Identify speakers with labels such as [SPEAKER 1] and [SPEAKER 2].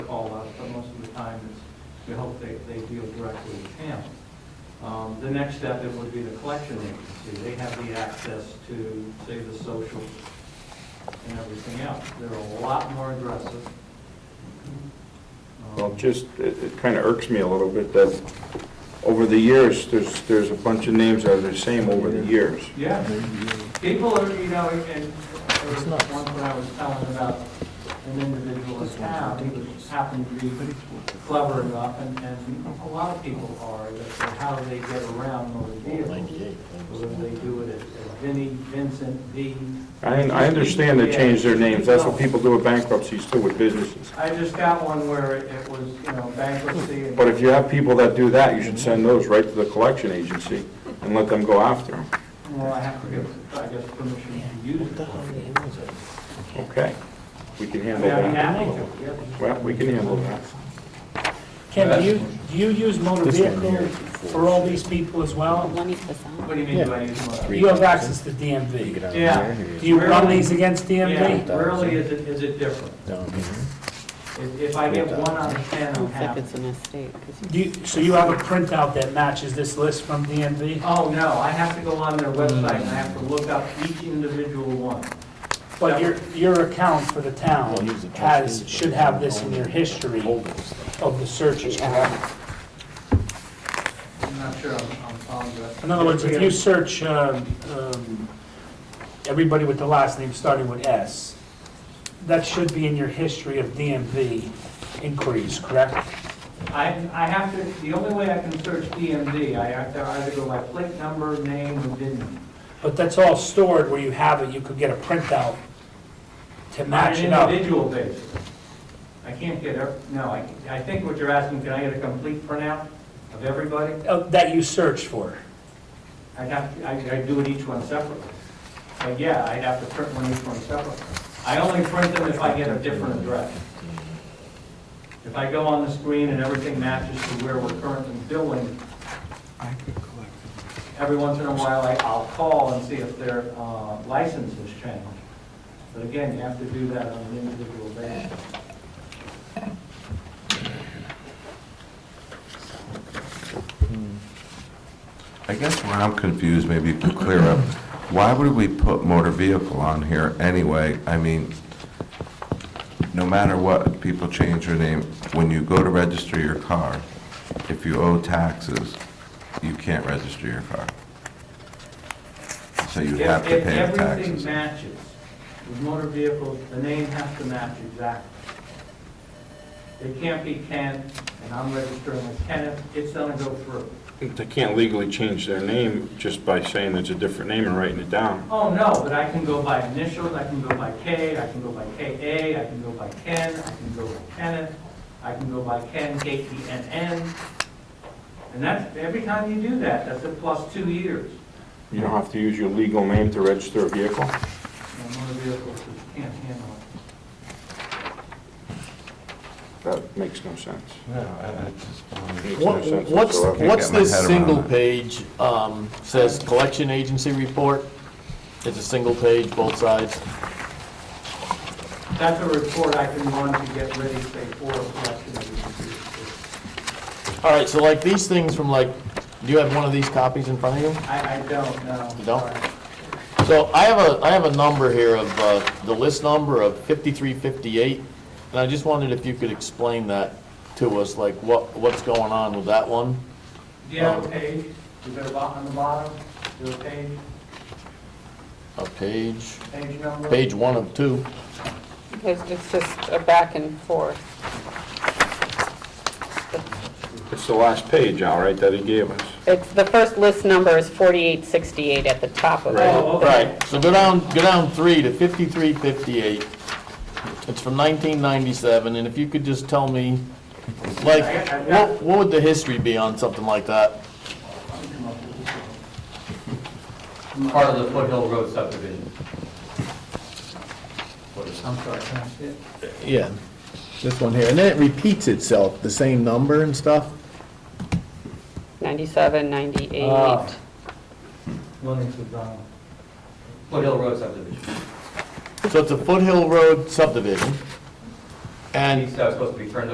[SPEAKER 1] We hope they, they deal directly with him. Um, The next step, it would be the collection agency. They have the access to, say, the social and everything else. They're a lot more aggressive. Um,
[SPEAKER 2] Well, just, it, it kind of irks me a little bit that over the years, there's, there's a bunch of names that are the same over the years.
[SPEAKER 1] Yeah, people are, you know, and there was
[SPEAKER 3] It's nuts.
[SPEAKER 1] one that I was telling about an individual in
[SPEAKER 3] This one's
[SPEAKER 1] town
[SPEAKER 3] ridiculous.
[SPEAKER 1] who happened to be clever enough, and, and a lot of people are, that that how they get around motor vehicles. Whether they do it as Vinnie, Vincent, V.
[SPEAKER 2] I, I understand they change their names, that's what people do with bankruptcies too, with businesses.
[SPEAKER 1] I just got one where it- it was, you know, bankruptcy and.
[SPEAKER 2] But if you have people that do that, you should send those right to the collection agency and let them go after them.
[SPEAKER 1] Well, I have to give, I guess, permission to use it.
[SPEAKER 2] Okay, we can
[SPEAKER 1] I
[SPEAKER 2] handle
[SPEAKER 1] mean, I'm happy
[SPEAKER 2] that.
[SPEAKER 1] to, yeah.
[SPEAKER 2] Well, we can handle that.
[SPEAKER 3] Ken, do you, do you use motor
[SPEAKER 4] This one here
[SPEAKER 3] vehicle
[SPEAKER 4] is before.
[SPEAKER 3] for all these people as well?
[SPEAKER 5] One is the sound.
[SPEAKER 1] What do you mean by use my?
[SPEAKER 3] You have access to DMV.
[SPEAKER 1] Yeah.
[SPEAKER 3] Do you run these against DMV?
[SPEAKER 1] Yeah, rarely is it, is it different.
[SPEAKER 4] Down here.
[SPEAKER 1] If, if I get one out of ten, I'm
[SPEAKER 5] Looks like
[SPEAKER 1] happy.
[SPEAKER 5] it's an estate, 'cause
[SPEAKER 3] Do you, so you have a printout that matches this list from DMV?
[SPEAKER 1] Oh, no, I have to go on their website and I have to look up each individual one.
[SPEAKER 3] But your, your account for the town
[SPEAKER 4] Well, he's a trustee,
[SPEAKER 3] has,
[SPEAKER 4] but
[SPEAKER 3] should
[SPEAKER 4] he's
[SPEAKER 3] have
[SPEAKER 4] not
[SPEAKER 3] this in your
[SPEAKER 4] owning it.
[SPEAKER 3] history
[SPEAKER 4] Hold this thing.
[SPEAKER 3] of the searches, correct?
[SPEAKER 1] I'm not sure I'm, I'm following that.
[SPEAKER 3] In other words, if you search, um, um, everybody with the last name starting with S, that should be in your history of DMV inquiries, correct?
[SPEAKER 1] I, I have to, the only way I can search DMV, I have to either go by plate number, name, or VIN. number.
[SPEAKER 3] But that's all stored where you have it, you could get a printout to match it
[SPEAKER 1] On an
[SPEAKER 3] up.
[SPEAKER 1] individual basis. I can't get, ev- no, I, I think what you're asking, can I get a complete printout of everybody?
[SPEAKER 3] uh, That you searched for.
[SPEAKER 1] I'd have, to- I- I'd do it each one separately. But yeah, I'd have to print one each one separately. I only print them if I get a different address. If I go on the screen and everything matches to where we're currently billing, every once in a while, I- I'll call and see if their uh, license has changed. But again, you have to do that on an individual basis.
[SPEAKER 6] I guess where I'm confused, maybe you could clear up, why would we put motor vehicle on here anyway? I mean, no matter what, people change their name. When you go to register your car, if you owe taxes, you can't register your car. So you
[SPEAKER 1] If
[SPEAKER 6] have to
[SPEAKER 1] if
[SPEAKER 6] pay the
[SPEAKER 1] everything
[SPEAKER 6] taxes.
[SPEAKER 1] matches, with motor vehicles, the name has to match exactly. It can't be Ken, and I'm registering as Kenneth, it's gonna go through.
[SPEAKER 7] They can't legally change their name just by saying it's a different name and writing it down.
[SPEAKER 1] Oh, no, but I can go by initials, I can go by K, I can go by KA, I can go by Ken, I can go by Kenneth, I can go by Ken, K-E-N-N. And that's, every time you do that, that's a plus two years.
[SPEAKER 2] You don't have to use your legal name to register a vehicle?
[SPEAKER 1] And motor vehicles just can't handle it.
[SPEAKER 2] That makes no sense.
[SPEAKER 7] um,
[SPEAKER 2] Makes no
[SPEAKER 4] What-
[SPEAKER 2] sense
[SPEAKER 4] What's,
[SPEAKER 2] whatsoever.
[SPEAKER 4] what's
[SPEAKER 6] my
[SPEAKER 4] this
[SPEAKER 6] head around
[SPEAKER 4] single
[SPEAKER 6] that.
[SPEAKER 4] page, um, says collection agency report? It's a single page, both sides.
[SPEAKER 1] That's a report I can run to get ready, say, for a collection agency.
[SPEAKER 4] All right, so like these things from like, do you have one of these copies in front of you?
[SPEAKER 1] I, I don't know.
[SPEAKER 4] You don't? So I have a, I have a number here of, uh, the list number of 5358, and I just wondered if you could explain that to us, like what, what's going on with that one?
[SPEAKER 1] Do you have a page? Is there a bot on the bottom? Is there a page,
[SPEAKER 4] A page,
[SPEAKER 1] page number?
[SPEAKER 4] page one of two.
[SPEAKER 5] There's, it's just a back and forth.
[SPEAKER 7] It's the last page, all right, that he gave us.
[SPEAKER 5] It's, the first list number is 4868 at the top of it.
[SPEAKER 1] Oh, okay.
[SPEAKER 4] Right, so go down, go down three to 5358. It's from 1997, and if you could just tell me, like, what, what would the history be on something like that?
[SPEAKER 8] part of the Foothill Road subdivision.
[SPEAKER 1] I'm sorry, can I see it?
[SPEAKER 4] Yeah, this one here, and then it repeats itself, the same number and stuff?
[SPEAKER 5] 97, 98.
[SPEAKER 1] Ah. Lennox was on.
[SPEAKER 8] Foothill Road subdivision.
[SPEAKER 4] So it's a Foothill Road subdivision, and
[SPEAKER 8] East, I was supposed to be turned